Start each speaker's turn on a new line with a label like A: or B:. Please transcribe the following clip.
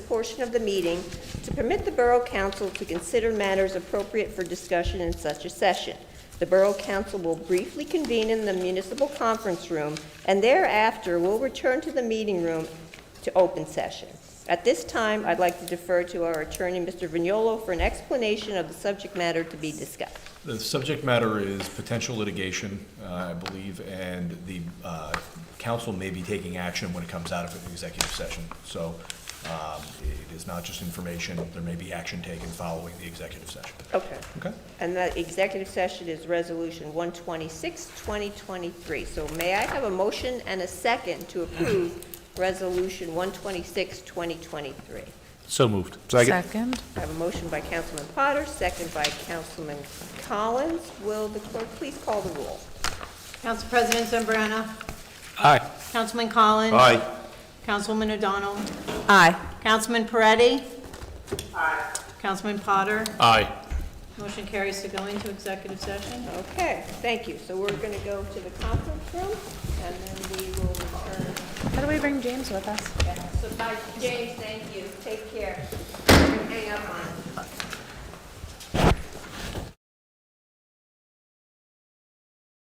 A: portion of the meeting to permit the Borough Council to consider matters appropriate for discussion in such a session. The Borough Council will briefly convene in the municipal conference room and thereafter will return to the meeting room to open session. At this time, I'd like to defer to our attorney, Mr. Vignolo, for an explanation of the subject matter to be discussed.
B: The subject matter is potential litigation, uh, I believe, and the uh, council may be taking action when it comes out of an executive session. So um, it is not just information, there may be action taken following the executive session.
A: Okay.
B: Okay?
A: And the executive session is Resolution 126, 2023. So may I have a motion and a second to approve Resolution 126, 2023?
C: So moved.
D: Second.
A: I have a motion by Councilman Potter, second by Councilman Collins. Will the clerk please call the roll?
E: Council President Zambrana.
C: Aye.
E: Councilman Collins.
C: Aye.
E: Councilwoman O'Donnell.
D: Aye.
E: Councilman Peretti. Aye. Councilman Potter.
C: Aye.
E: Motion carries to go into executive session.
A: Okay, thank you. So we're going to go to the conference room, and then we will return.
D: How do we bring James with us?
A: So bye, James, thank you. Take care. Hang up on it.